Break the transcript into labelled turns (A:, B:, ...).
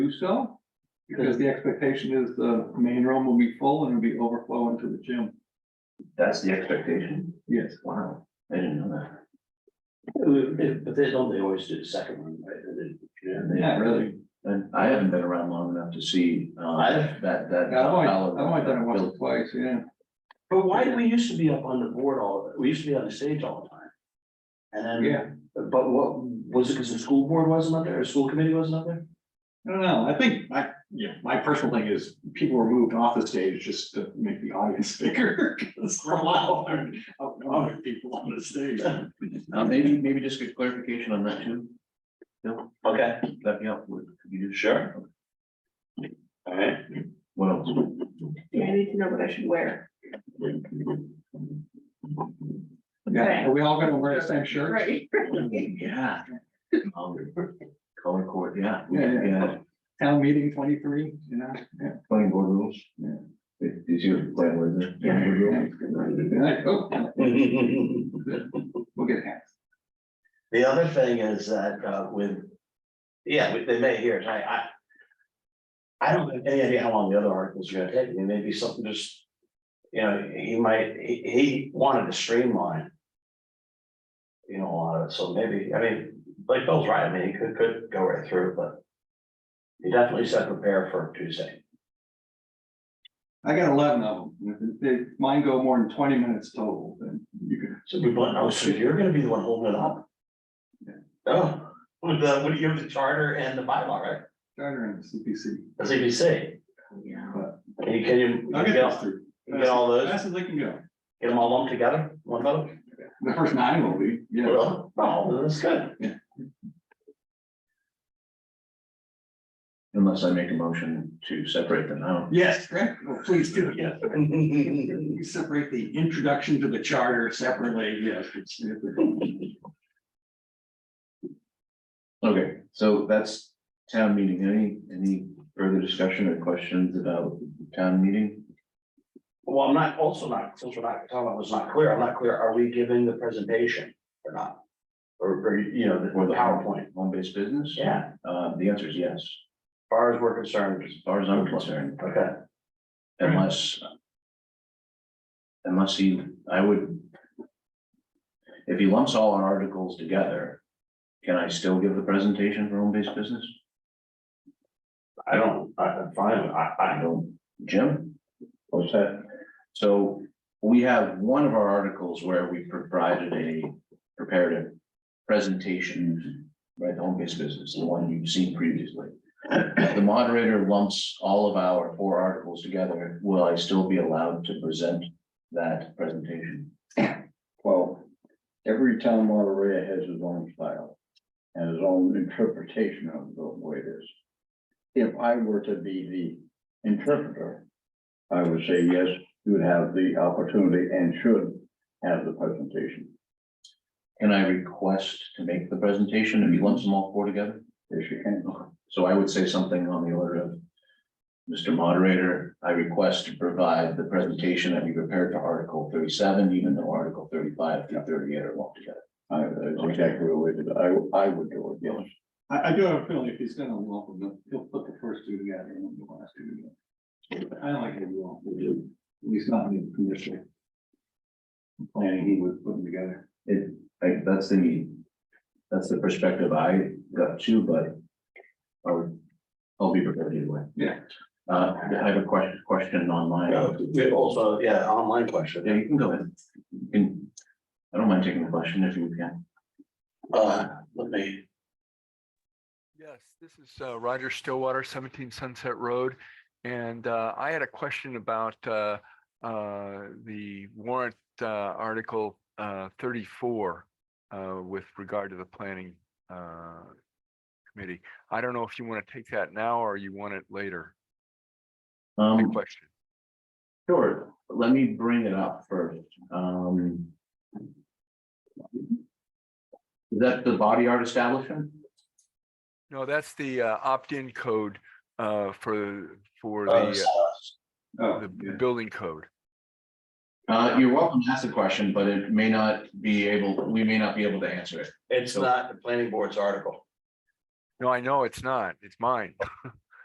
A: do so. Because the expectation is the main room will be full and it'll be overflowing to the gym.
B: That's the expectation?
A: Yes.
B: Wow, I didn't know that.
C: But they don't, they always do the second one, right? And then-
B: Yeah, they- And I haven't been around long enough to see, uh,
C: I-
B: that, that.
A: Yeah, I've only, I've only done it once or twice, yeah.
C: But why do we used to be up on the board all, we used to be on the stage all the time? And
A: Yeah,
C: then, but what, was it because the school board wasn't up there, or school committee wasn't up there?
D: I don't know, I think, I, you know, my personal thing is people were moved off the stage just to make the audience bigger. Cause for a while, there were other people on the stage.
B: Uh, maybe, maybe just get clarification on that too. No,
C: Okay,
B: let me up, would you do?
C: Sure. all right,
B: What else?
E: Yeah, I need to know what I should wear.
A: yeah. Are we all gonna wear the same shirt?
E: Right.
B: Yeah. Um, Color court, yeah, we-
A: Yeah, yeah.
B: yeah,
A: Town meeting twenty-three, you know? yeah.
B: playing board rules.
A: Yeah.
B: Did did you play with it?
E: Yeah.
A: Yeah, oh, We'll get hats.
C: The other thing is that uh, with, yeah, we- they may hear, it. I, I. I don't have any idea how long the other articles are gonna take, I mean, maybe something just. You know, he might, he, he wanted to streamline. You know, a lot of it, so maybe, I mean, like Bill's right, I mean, he could, could go right through, but. He definitely said prepare for Tuesday.
A: I got eleven of them. If if mine go more than twenty minutes total, then you could
C: So we want, oh, so you're gonna be the one holding it up? Oh, with the, what do you have the charter and the bylaw, right?
A: charter in the CPC.
C: The CBC.
E: Yeah.
C: Can you, can you,
A: I'll get
C: you get,
A: those
C: all-
A: through.
C: you get all those,
A: Fast as they can go.
C: get them all lumped together, one vote?
A: The first nine will be, yeah.
C: Well, Oh, that's good.
B: Unless I make a motion to separate them out.
A: Yes, correct. Oh, please do.
D: Yeah, you separate the introduction to the charter separately, yes. it's-
B: Okay, so that's town meeting. Any, any further discussion or questions about town meeting?
C: Well, I'm not, also not, since we're not, talking about was not clear, I'm not clear, are we giving the presentation or not? Or, or, you know, the- or the PowerPoint?
B: Home-based business?
C: Yeah, as
B: Uh, the answer is yes,
C: far as we're concerned,
B: as far as I'm concerned,
C: okay,
B: unless. Unless he, I would. If he lumps all our articles together, can I still give the presentation for home-based business?
C: I don't, I, I'm fine, I,
B: I
C: I,
B: don't, Jim? What's that? So we have one of our articles where we provided a prepared a presentation, right, the home-based business, the one you've seen previously. If The moderator lumps all of our four articles together. Will I still be allowed to present that presentation?
F: Well, every town moderator has his own style and his own interpretation of the way it is. If I were to be the interpreter, I would say, yes, you would have the opportunity and should have the presentation.
B: Can I request to make the presentation if he lumps them all four together?
F: Yes, you can.
B: So I would say something on the order of, Mr. Moderator, I request to provide the presentation that we prepared for Article thirty-seven, even though Article thirty-five through thirty-eight are lumped together.
F: I, that's exactly the way that I, I would do it, yes.
A: I, I do have a feeling if he's gonna lump them, he'll put the first two together and then the last two together. I don't like it lump, at least not in the initial Planning he was putting together.
B: It, like, that's the, that's the perspective I got too, but I would, I'll be prepared either way.
A: Yeah.
B: Uh, I have a question, question online.
C: Uh, we also, yeah, online question.
B: Yeah, you can go ahead. You can, I don't mind taking a question if you can.
C: Uh, let me,
G: Yes, this is uh, Roger Stillwater, 17 Sunset Road. And uh, I had a question about uh, uh, the warrant uh, article uh, 34 uh, with regard to the planning uh, committee. I don't know if you want to take that now or you want it later. My
B: Um,
G: question.
B: Sure, let me bring it up first, um. Is that the body art establishment?
G: No, that's the uh, opt-in code uh, for, for
C: uh,
G: the, uh,
A: Oh,
G: the
A: yeah.
G: building code.
B: Uh, you're welcome to ask the question, but it may not be able, we may not be able to answer it.
C: it's not the planning board's article.
G: No, I know it's not. It's mine.